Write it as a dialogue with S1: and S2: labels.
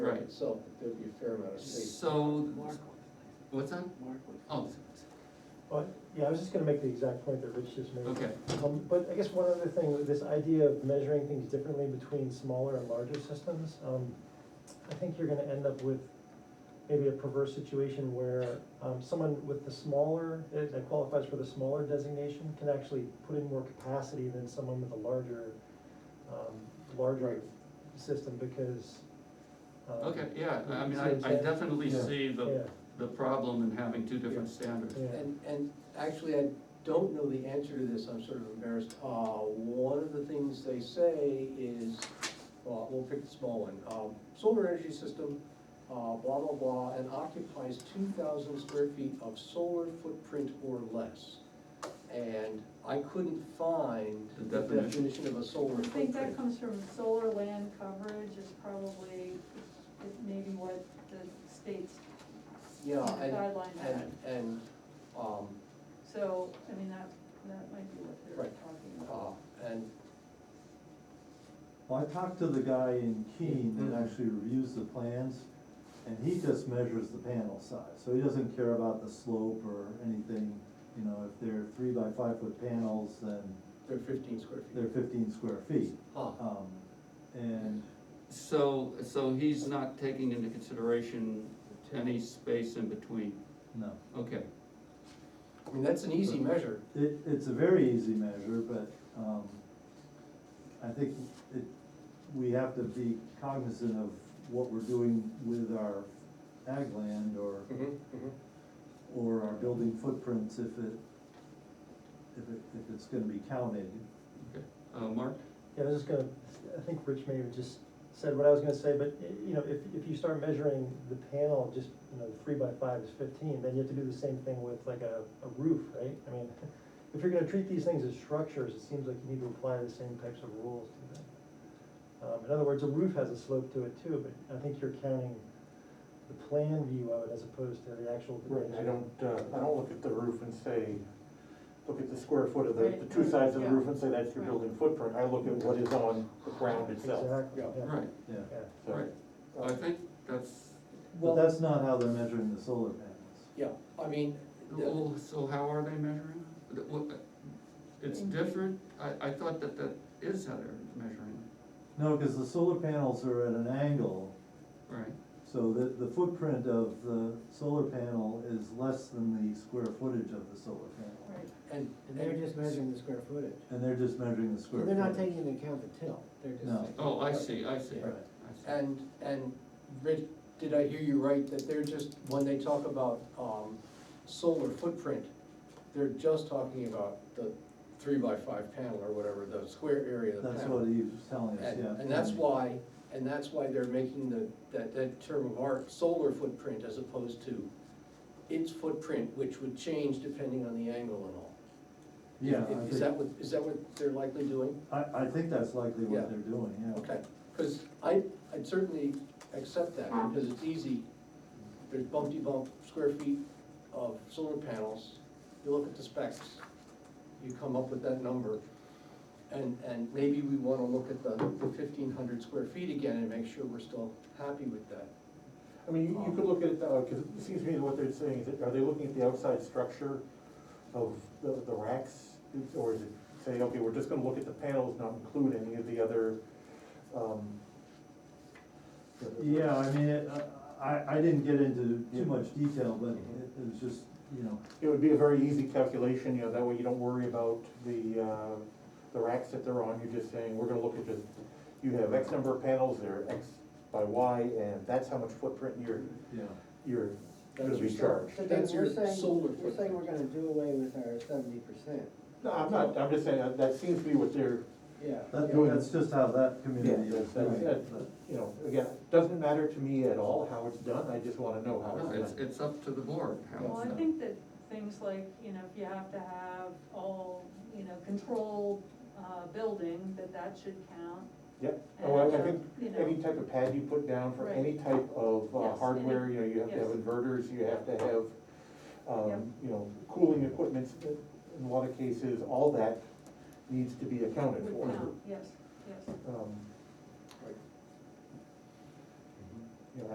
S1: itself, that there'd be a fair amount of space.
S2: So,
S3: Mark one.
S2: what's that?
S3: Mark one.
S2: Oh,
S4: But, yeah, I was just gonna make the exact point that Rich just made.
S2: okay,
S4: Um, But I guess one other thing, this idea of measuring things differently between smaller and larger systems, um, I think you're gonna end up with maybe a perverse situation where, um, someone with the smaller, eh, that that qualifies for the smaller designation can actually put in more capacity than someone with a larger, um, larger
S1: Right.
S4: system because. um,
S2: okay, yeah, I mean,
S4: See
S2: I,
S4: what I'm
S2: I
S4: saying?
S2: definitely
S1: Yeah.
S2: see the,
S4: Yeah,
S2: the problem in having two different standards.
S4: yeah.
S1: And, and actually, I don't know the answer to this, I'm sort of embarrassed. Uh, one of the things they say is, well, we'll pick the small one, um, solar energy system, uh, blah, blah, blah, and occupies two thousand square feet of solar footprint or less. And I couldn't find
S2: The
S1: the
S2: definition.
S1: definition of a solar
S5: I
S1: footprint.
S5: think that comes from solar land coverage is probably, is maybe what the state's
S1: Yeah, and,
S5: guideline had.
S1: and, and, um,
S5: So, I mean, that, that might be what they're
S1: Right.
S5: talking
S1: uh,
S5: about.
S1: and
S6: Well, I talked to the guy in Keene that actually reviews the plans, and he just measures the panel size, so he doesn't care about the slope or anything. You know, if they're three by five foot panels, then
S1: they're fifteen square feet.
S6: they're fifteen square feet.
S1: Huh.
S6: Um, and,
S2: So, so he's not taking into consideration any space in between,
S6: no,
S2: okay.
S1: I mean, that's an easy measure.
S6: it, it's a very easy measure, but, um, I think it, we have to be cognizant of what we're doing with our ag land or or our building footprints if it, if it, if it's gonna be counted.
S2: Okay, uh, Mark?
S4: Yeah, I was just gonna, I think Rich may have just said what I was gonna say, but, y- you know, if, if you start measuring the panel, just, you know, the three by five is fifteen, then you have to do the same thing with like a, a roof, right? I mean, if you're gonna treat these things as structures, it seems like you need to apply the same types of rules to them. Um, in other words, a roof has a slope to it too, but I think you're counting the plan view of it as opposed to the actual
S7: Right,
S4: dimension.
S7: I don't, uh, I don't look at the roof and say, look at the square foot of the,
S5: Right,
S7: the two sides of the
S5: yeah.
S7: roof and say that's your
S5: Right.
S7: building footprint, I look at what is on the ground itself.
S4: Exactly,
S1: Yeah.
S4: yeah,
S2: Right,
S6: Yeah,
S4: yeah.
S7: So,
S2: right,
S7: uh,
S2: I think that's,
S6: but that's not how they're measuring the solar panels.
S1: Yeah, I mean, the-
S2: well, oh, so how are they measuring? The- what- It's different, I, I thought that that is how they're measuring,
S6: No, cause the solar panels are at an angle,
S2: right?
S6: so that the footprint of the solar panel is less than the square footage of the solar
S1: Uh,
S6: panel.
S5: Right,
S1: and.
S3: And they're just measuring the square footage.
S6: And they're just measuring the square.
S3: They're not
S6: footage.
S3: taking into account the till, they're just.
S6: No.
S3: saying-
S2: Oh, I see, I see,
S6: Right.
S2: I see.
S1: And, and, Rich, did I hear you right, that they're just, when they talk about, um, solar footprint, they're just talking about the three by five panel or whatever, the square area of the
S6: That's
S1: panel.
S6: what he was telling us,
S1: And,
S6: yeah.
S1: and that's why, and that's why they're making the, that, that term of art, solar footprint as opposed to its footprint, which would change depending on the angle and all.
S6: Yeah,
S1: Is-
S6: I
S1: Is that
S6: think,
S1: what, is that what they're likely doing?
S6: I, I think that's likely
S1: Yeah.
S6: what they're doing, yeah.
S1: Okay, because I, I'd certainly accept that, because it's easy. There's bumpty bump square feet of solar panels, you look at the specs, you come up with that number. And, and maybe we wanna look at the fifteen hundred square feet again and make sure we're still happy with that.
S7: I mean, you- you could look at it that way, cause it seems to me what they're saying is, that- are they looking at the outside structure of the, the racks? Or is it saying, okay, we're just gonna look at the panels, not include any of the other, um. the-
S6: Yeah, I mean, it- I, I didn't get into too much detail, but it it was just, you know,
S7: It would be a very easy calculation, you know, that way you don't worry about the, uh, the racks that they're on, you're just saying, we're gonna look at just, you have X number of panels, they're X by Y, and that's how much footprint you're,
S6: yeah.
S7: you're gonna
S1: That's
S7: be charged.
S3: So then
S1: That's
S3: you're
S1: your
S3: saying,
S1: solar
S3: you're saying we're
S1: footprint.
S3: gonna do away with our seventy percent,
S7: No, I'm not, I'm just saying, that- that seems to be what they're,
S3: yeah.
S6: That,
S7: Yeah.
S6: that's just how that community
S7: Yeah,
S6: is
S7: that's-
S6: doing
S7: that's-
S6: it, but,
S7: you know, again, doesn't matter to me at all how it's done, I just wanna know how
S2: No, it's,
S7: it's done.
S2: it's up to the board, how
S5: well,
S2: it's
S5: I
S2: done.
S5: think that things like, you know, if you have to have all, you know, controlled, uh, building, that that should count.
S7: Yep, oh, I, I
S5: And,
S7: think
S5: you know-
S7: any type of pad you put down for any type of uh,
S5: Yes,
S7: hardware,
S5: any-
S7: you know, you have to have
S5: yes.
S7: inverters, you have to have,
S5: Yep.
S7: um, you know, cooling equipment, in a lot of cases, all that needs to be accounted
S5: Would
S7: for.
S5: count, yes, yes.
S7: Um,